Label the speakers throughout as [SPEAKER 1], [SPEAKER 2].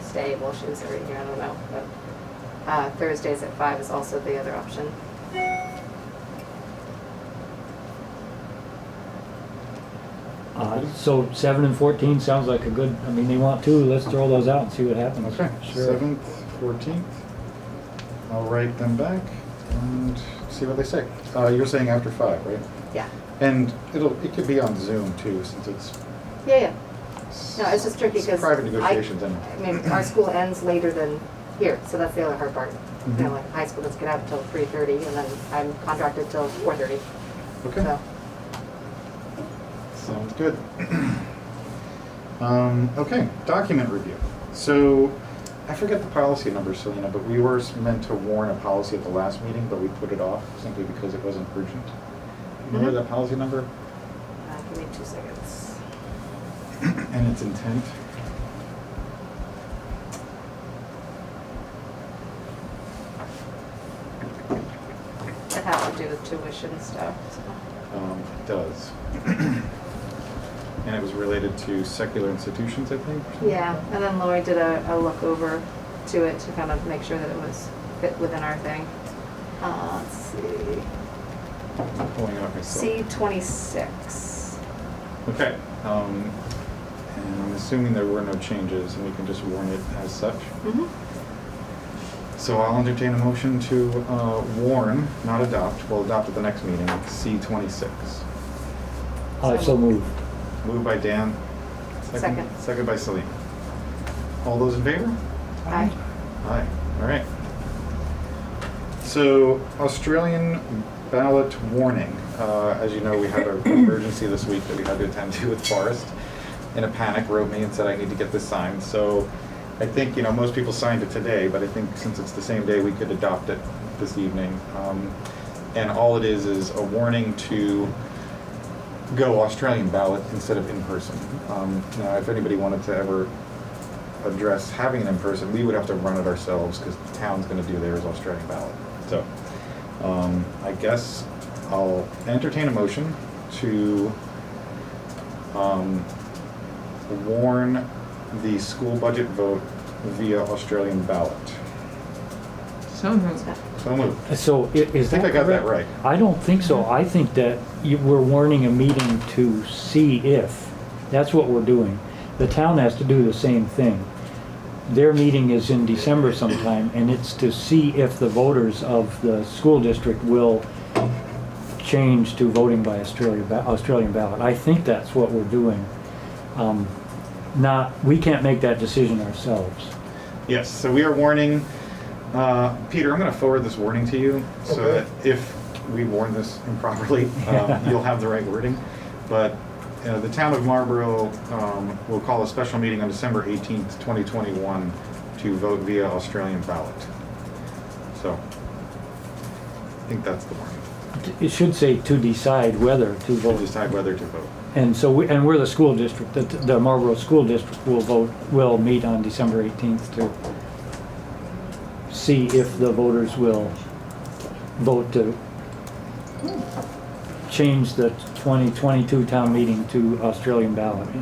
[SPEAKER 1] stay, well, she was there a year, I don't know, but, uh, Thursdays at five is also the other option.
[SPEAKER 2] Uh, So seven and fourteen sounds like a good, I mean, they want two, let's throw those out and see what happens.
[SPEAKER 3] Okay,
[SPEAKER 2] Sure.
[SPEAKER 3] seventh, fourteenth. I'll write them back and see what they say. Uh, you're saying after five, right?
[SPEAKER 1] Yeah.
[SPEAKER 3] And it'll, it could be on Zoom too, since it's.
[SPEAKER 1] Yeah, yeah. No, it's just tricky because.
[SPEAKER 3] Private negotiations anyway.
[SPEAKER 1] I mean, our school ends later than here, so that's the other hard part. You know,
[SPEAKER 3] Mhm.
[SPEAKER 1] like high school doesn't get out till three thirty and then I'm contracted till four thirty,
[SPEAKER 3] Okay,
[SPEAKER 1] so.
[SPEAKER 3] sounds good. Um, okay, document review. So I forget the policy number, Selena, but we were meant to warn a policy at the last meeting, but we put it off simply because it wasn't urgent. Remember
[SPEAKER 1] Mhm.
[SPEAKER 3] that policy number
[SPEAKER 1] Uh, give me two seconds.
[SPEAKER 3] and its intent?
[SPEAKER 1] It has to do with tuition stuff, so.
[SPEAKER 3] Um, it does. And it was related to secular institutions, I think? or something like
[SPEAKER 1] Yeah,
[SPEAKER 3] that?
[SPEAKER 1] and then Lori did a, a look over to it to kind of make sure that it was fit within our thing. Uh, let's
[SPEAKER 3] I'm pulling it up myself.
[SPEAKER 1] see, C twenty-six.
[SPEAKER 3] Okay. Um, and I'm assuming there were no changes and we can just warn it as such.
[SPEAKER 1] Mhm.
[SPEAKER 3] So I'll entertain a motion to, uh, warn, not adopt, we'll adopt at the next meeting, C twenty-six.
[SPEAKER 2] Uh, so move.
[SPEAKER 3] Moved by Dan.
[SPEAKER 1] Second.
[SPEAKER 3] Second by Celine. All those in favor?
[SPEAKER 1] Aye.
[SPEAKER 3] Aye, all right. So Australian ballot warning. Uh, As you know, we had an emergency this week that we had to attend to with Forrest. In a panic, wrote me and said, I need to get this signed. So I think, you know, most people signed it today, but I think since it's the same day, we could adopt it this evening. Um, And all it is, is a warning to go Australian ballot instead of in person. Um, Now, if anybody wanted to ever address having it in person, we would have to run it ourselves because the town's going to do theirs Australian ballot. So um, I guess I'll entertain a motion to um, warn the school budget vote via Australian ballot.
[SPEAKER 4] So moved.
[SPEAKER 3] So moved.
[SPEAKER 2] So i- is
[SPEAKER 3] I
[SPEAKER 2] that
[SPEAKER 3] think I got that
[SPEAKER 2] correct?
[SPEAKER 3] right.
[SPEAKER 2] I don't think so. I think that you, we're warning a meeting to see if. That's what we're doing. The town has to do the same thing. Their meeting is in December sometime, and it's to see if the voters of the school district will change to voting by Australia, ba- Australian ballot. I think that's what we're doing. Um, not, we can't make that decision ourselves.
[SPEAKER 3] Yes, so we are warning, uh, Peter, I'm gonna forward this warning to you, so that
[SPEAKER 5] Okay.
[SPEAKER 3] if we warn this improperly, um, you'll have the right wording. But, uh, the town of Marlborough, um, will call a special meeting on December eighteenth, twenty twenty-one to vote via Australian ballot. So, I think that's the warning.
[SPEAKER 2] It should say to decide whether to
[SPEAKER 3] We'll
[SPEAKER 2] vote.
[SPEAKER 3] decide whether to vote.
[SPEAKER 2] And so, we and we're the school district, the the Marlboro School District will vote, will meet on December 18th to see if the voters will vote to change the 2022 town meeting to Australian ballot.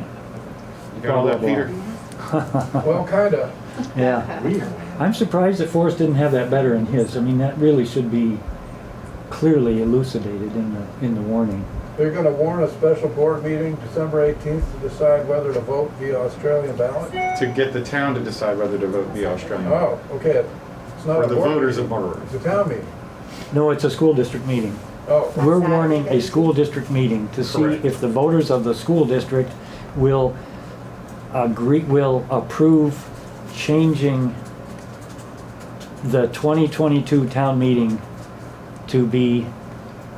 [SPEAKER 3] You got all that,
[SPEAKER 2] Blah, blah,
[SPEAKER 3] Peter?
[SPEAKER 5] Well, kinda.
[SPEAKER 2] Yeah.
[SPEAKER 3] Weird.
[SPEAKER 2] I'm surprised that Forrest didn't have that better in his. I mean, that really should be clearly elucidated in the, in the warning.
[SPEAKER 5] They're gonna warn a special board meeting December eighteenth to decide whether to vote via Australian ballot?
[SPEAKER 3] To get the town to decide whether to vote via Australian ballot.
[SPEAKER 5] Oh, okay. It's not
[SPEAKER 3] For
[SPEAKER 5] a
[SPEAKER 3] the
[SPEAKER 5] board
[SPEAKER 3] voters
[SPEAKER 5] meeting.
[SPEAKER 3] of Marlborough.
[SPEAKER 5] It's a town meeting.
[SPEAKER 2] No, it's a school district meeting.
[SPEAKER 5] Oh,
[SPEAKER 2] We're warning a school district meeting to see
[SPEAKER 3] Correct.
[SPEAKER 2] if the voters of the school district will uh, agree, will approve changing the 2022 town meeting to be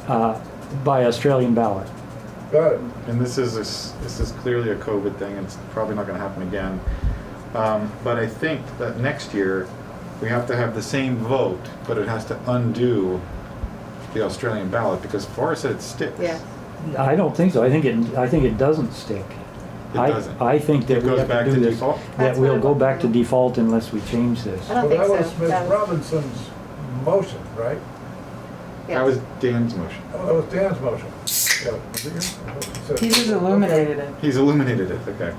[SPEAKER 2] uh, by Australian ballot.
[SPEAKER 5] got it.
[SPEAKER 3] and this is a s this is clearly a COVID thing. It's probably not going to happen again. Um, but I think that next year we have to have the same vote, but it has to undo the Australian ballot because Forrest said it sticks.
[SPEAKER 1] Yeah,
[SPEAKER 2] I don't think so. I think it, I think it doesn't stick.
[SPEAKER 3] It
[SPEAKER 2] I-
[SPEAKER 3] doesn't.
[SPEAKER 2] I think that
[SPEAKER 3] It
[SPEAKER 2] we
[SPEAKER 3] goes
[SPEAKER 2] have
[SPEAKER 3] back
[SPEAKER 2] to do
[SPEAKER 3] to
[SPEAKER 2] this.
[SPEAKER 3] default?
[SPEAKER 2] That
[SPEAKER 1] That's what
[SPEAKER 2] we'll
[SPEAKER 1] it
[SPEAKER 2] go
[SPEAKER 1] was.
[SPEAKER 2] back to default unless we change this.
[SPEAKER 1] I don't think
[SPEAKER 5] Well,
[SPEAKER 1] so.
[SPEAKER 5] that was
[SPEAKER 1] That
[SPEAKER 5] Ms.
[SPEAKER 1] was-
[SPEAKER 5] Robinson's motion, right? Oh,
[SPEAKER 1] yeah.
[SPEAKER 3] That was Dan's motion.
[SPEAKER 5] That was Dan's motion. Yeah. So-
[SPEAKER 4] He just illuminated it.
[SPEAKER 3] He's illuminated it. Okay.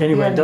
[SPEAKER 2] Anyway, it
[SPEAKER 4] Yeah,